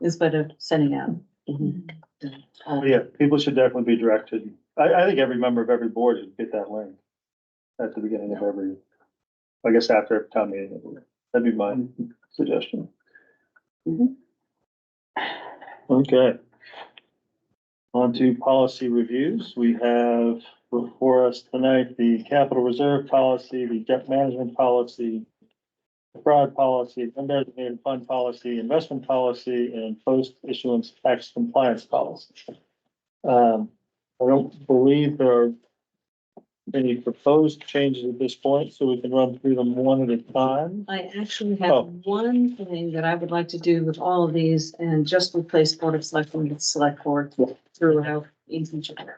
instead of sending out. Mm-hmm. But Um, Yeah, people should definitely be directed. I, I think every member of every board should get that link at the beginning of every, I guess after every town meeting. That'd be my suggestion. Mhm. Okay. On to policy reviews. We have before us tonight the capital reserve policy, the debt management policy, the fraud policy, undesignated fund policy, investment policy, and post issuance tax compliance policy. Um, I don't believe there are any proposed changes at this point, so we can run through them one at a time. I actually Oh. have one thing that I would like to do with all of these and just replace Board of Selectmen with Select Board throughout each and every.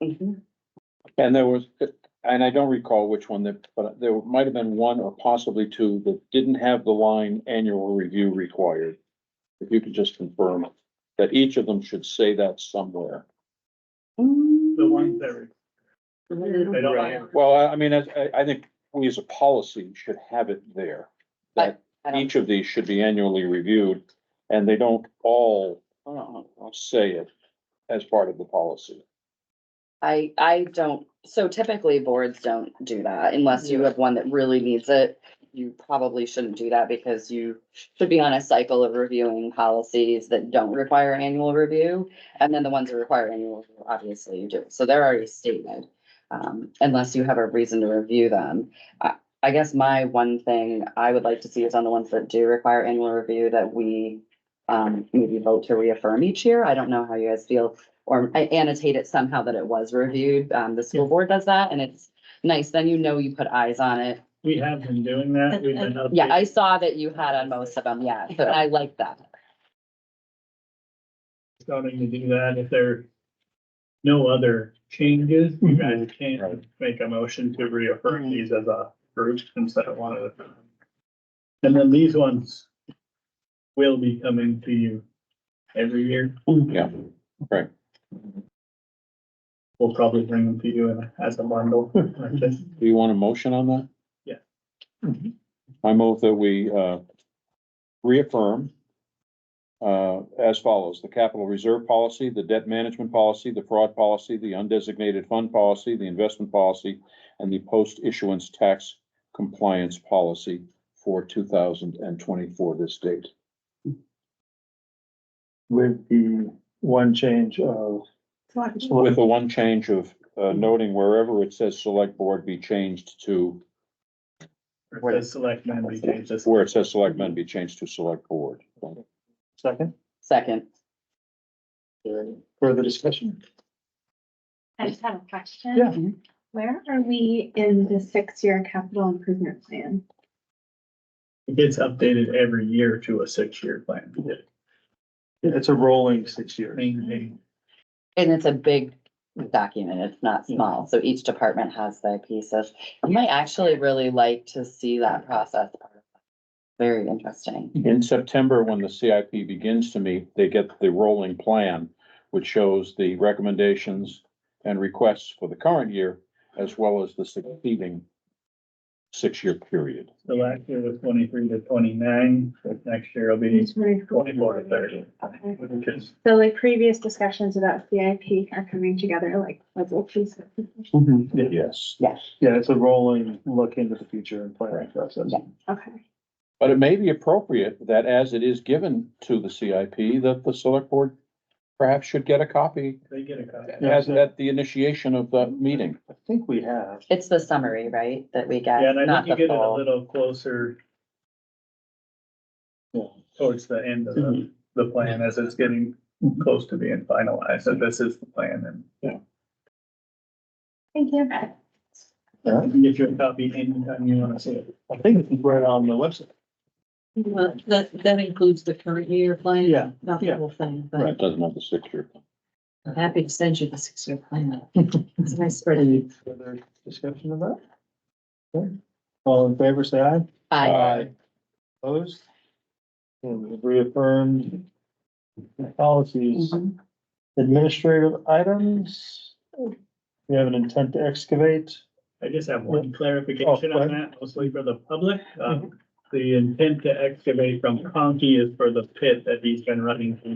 Yep. And there was, and I don't recall which one that, but there might have been one or possibly two that didn't have the line annual review required. If you could just confirm that each of them should say that somewhere. The Mm, ones that are, They don't have- Well, I, I mean, I, I- I think we as a policy should have it there. That I- I don't- each of these should be annually reviewed and they don't all say it as part of the policy. I, I don't, so typically boards don't do that unless you have one that really needs it. You probably shouldn't do that because you should be on a cycle of reviewing policies that don't require annual review. And then the ones that require annual, review, obviously you do. So they're already stated. Um, unless you have a reason to review them. I, I guess my one thing I would like to see is on the ones that do require annual review that we um, maybe vote to reaffirm each year. I don't know how you guys feel or I annotate it somehow that it was reviewed. Um, the school board does that and it's nice. Then you know you put eyes on it. we have been doing that, we've been. Yeah, I saw that you had on most of them. Yeah, so I like that. Starting to do that, if there are no other changes, Mhm. you guys can Right. make a motion to reaffirm Mhm. these as a group instead of one at a time. And then these ones will be coming to you every year. Yeah, right. We'll probably bring them to you in- as a bundle like this. Do you want a motion on that? Mm-hmm. Yeah. I move that we uh, reaffirm uh, as follows, the capital reserve policy, the debt management policy, the fraud policy, the undesignated fund policy, the investment policy, and the post-issuance tax compliance policy for two thousand and twenty-four this date. With the one change of. With the one change of uh, noting wherever it says select board be changed to, Or the selectmen be changed this. where it says select men be changed to select board. Second, Second. further discussion? I just have a question. Yeah. Where are we in the six-year capital improvement plan? It gets updated every year to a six-year plan. It's a rolling six years. Maintain. And it's a big document. It's not small. So each department has their pieces. I might actually really like to see that process. Very interesting. In September, when the CIP begins to meet, they get the rolling plan, which shows the recommendations and requests for the current year, as well as the succeeding six-year period. So last year was twenty-three to twenty-nine, so next year will be twenty-four to thirty. Okay. Which is So like previous discussions about CIP are coming together, like, let's all please. Yes. Yes. Yeah, it's a rolling look into the future and planning process. Yeah. Okay. But it may be appropriate that as it is given to the CIP, that the select board perhaps should get a copy They get a copy. as at the initiation of the meeting. I think we have. It's the summary, right, that we get, Yeah, and I not think the you get it a full. little closer. Yeah. Towards the end of the, the plan as it's getting close to being finalized, so this is the plan and. Thank you. You can get your copy anytime you wanna see it. I think it's right on the website. Well, that, that includes the current year plan. Yeah, Not the yeah. whole thing, It but doesn't have the six-year. I'm happy to send you the six-year plan. It's a nice spreadsheet. Any further discussion of that? Okay. All in favor, say aye. Uh, I, Opposed? And we've reaffirmed the policies. Mhm. Administrative items. We have an intent to excavate. I just have Yeah. one clarification Oh, go Mm-hmm. on that, mostly for the public. Uh, Um, the intent to excavate from Conkey is for the pit that he's been running through